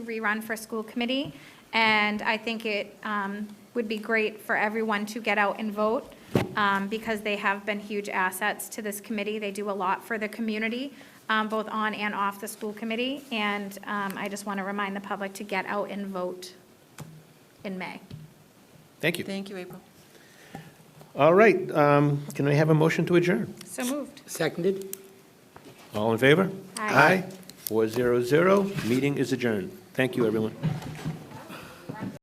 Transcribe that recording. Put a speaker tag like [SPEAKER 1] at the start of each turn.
[SPEAKER 1] rerun for school committee, and I think it um, would be great for everyone to get out and vote, um, because they have been huge assets to this committee. They do a lot for the community, um, both on and off the school committee, and um, I just want to remind the public to get out and vote in May.
[SPEAKER 2] Thank you.
[SPEAKER 3] Thank you, April.
[SPEAKER 2] All right, um, can I have a motion to adjourn?
[SPEAKER 1] So moved.
[SPEAKER 4] Seconded?
[SPEAKER 2] All in favor?
[SPEAKER 1] Aye.
[SPEAKER 2] Four zero zero, meeting is adjourned. Thank you, everyone.